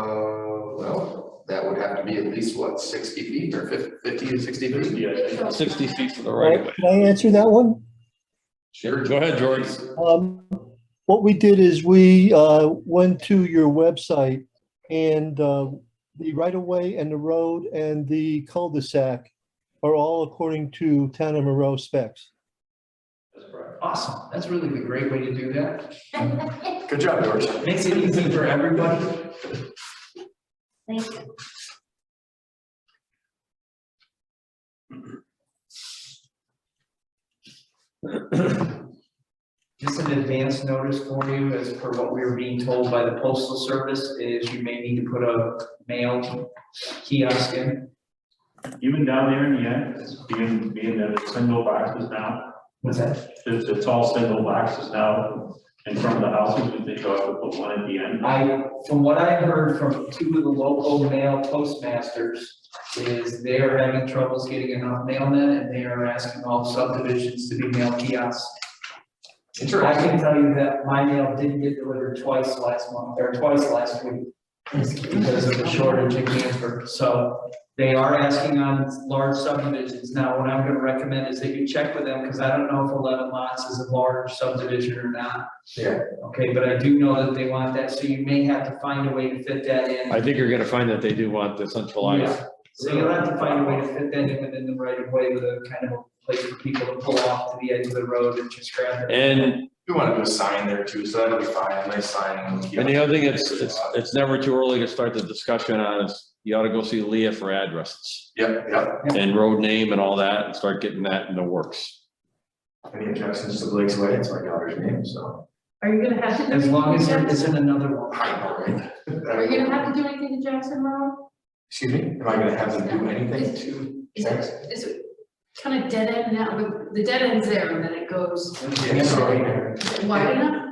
Uh, gotta be at least what, sixty feet or fif- fifty to sixty feet? Yeah, sixty feet to the right of way. Can I answer that one? Sure. Go ahead, George. Um, what we did is we, uh, went to your website and, uh, the right of way and the road and the cul-de-sac are all according to town of Monroe specs. Awesome. That's really the great way to do that. Good job, George. Makes it easy for everybody. Thank you. Just an advance notice for you, as per what we were being told by the postal service, is you may need to put a mail kiosk in. Even down there in the end, it's being, being that it's single boxes now, What's that? it's, it's all single boxes now in front of the houses, we think you ought to put one at the end. I, from what I heard from two of the local mail postmasters, is they are having troubles getting enough mailmen, and they are asking all subdivisions to be mail kiosks. I Interesting. can tell you that my mail didn't get delivered twice last month, or twice last week. Because of the shortage in Hanford, so they are asking on large subdivisions. Now, what I'm gonna recommend is that you check with them, because I don't know if eleven lots is a large subdivision or not. Yeah. Okay, but I do know that they want that, so you may have to find a way to fit that in. I think you're gonna find that they do want the centralized. Yeah. So you'll have to find a way to fit that in within the right of way with a kind of place for people to pull off to the edge of the road and just grab it. And, We wanna do a sign there too, so that'll be fine, a nice sign. and the other thing, it's, it's, it's never too early to start the discussion on is you ought to go see Leah for addresses Yep, yep, and road name and all that and start getting that in the works. any objections to Blake's Way, it's my daughter's name, so. Are you gonna have to do As long as there anything to Jackson? isn't another one. I know, right? Are you gonna have to do anything to Jackson Road? Excuse me, am I gonna have them do anything Is- to? Is it, is it kind of dead end now, but the dead end's there and then it goes Yeah, sorry. is it wide enough?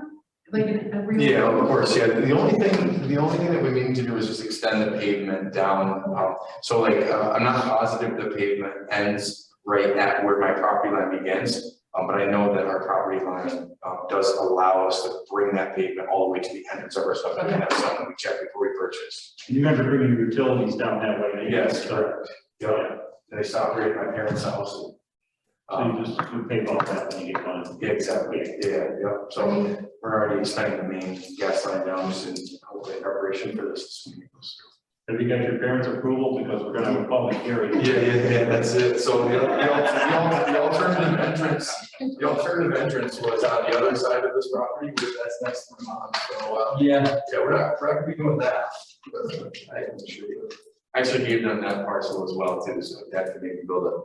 Like in a real. Yeah, of course, yeah, the only thing, the only thing that we need to do is just extend the pavement down, um, so like, uh, I'm not positive the pavement ends right at where my property line begins, um, but I know that our property line, um, does allow us to bring that pavement all the way to the entrance of our subdivision, that's something we check before we purchase. You have to bring your utilities down that way. right? Yes, So correct, yeah, they stopped right at my parents' house. you Um, just you pay all that when you get done. yeah, exactly, yeah, yeah, so we're already extending the main gas line down, just in hopefully preparation for this. Have you got your parents' approval, because we're gonna have a public hearing? Yeah, yeah, yeah, that's it, so the, the, the the alternative entrance, the alternative entrance was on the other side of this property, which that's next to my mom, so, uh, Yeah, yeah, we're not, we're not gonna be doing that. I can assure you. Actually, gave them that parcel as well too, so that could maybe build a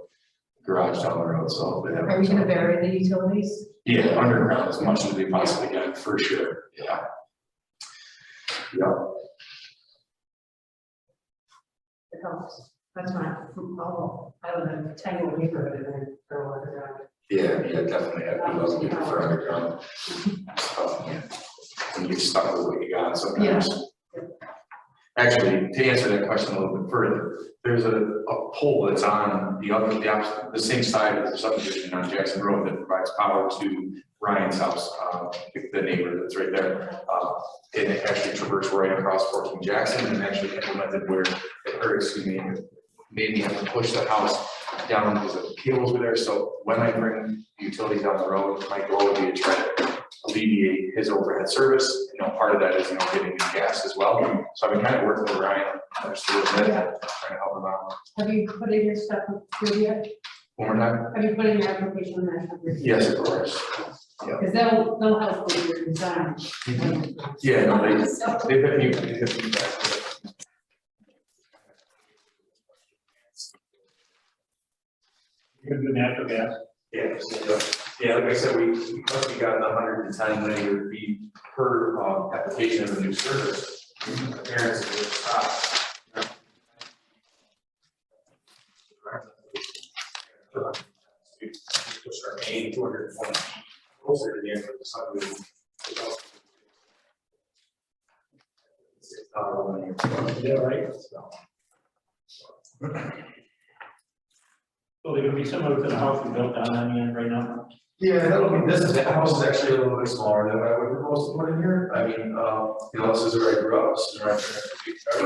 garage down the road, so. they have- Are we gonna bury the utilities? Yeah, underground as much as we possibly can, for sure, yeah. Yeah, It helps. That's my, oh, I don't know, tangle with paper and then throw it around. yeah, yeah, definitely, I would love to do it for underground. stuff, yeah. And you're stuck with what you got sometimes. Actually, to answer that question a little bit further, there's a, a pole that's on the other, the opposite, the same side of the subdivision on Jackson Road that provides power to Ryan's house, uh, the the neighbor that's right there. Uh, and it actually traversed right across fourteen Jackson and actually implemented where, or excuse me, made me have to push the house down because the cables were there. So when I bring utilities down the road, my goal would be to try to alleviate his overhead service. You know, part of that is, you know, getting new gas as well. So I've been kind of working with Ryan, understood that, trying to help him out. Have you put in your stuff through yet? One more time? Have you put in your application in that? number? Yes, of course. Because that'll, that'll help with your design. Yeah, no, they, So- they hit me, they hit me back. You're gonna do natural gas. Yeah, so, yeah, like I said, we, we must be gotten a hundred and ten linear feet per, uh, application of a new service. Appearance of the top. We Push our main two hundred and twenty closer to the end of the subdivision. It's not a linear, yeah, right, so. So there gonna be similar to the house we built down on the end right now? Yeah, that'll be, this, the house is actually a little bit um, smaller than I would propose to put in here, I mean, uh, you know, this is where I grew up, this is where I.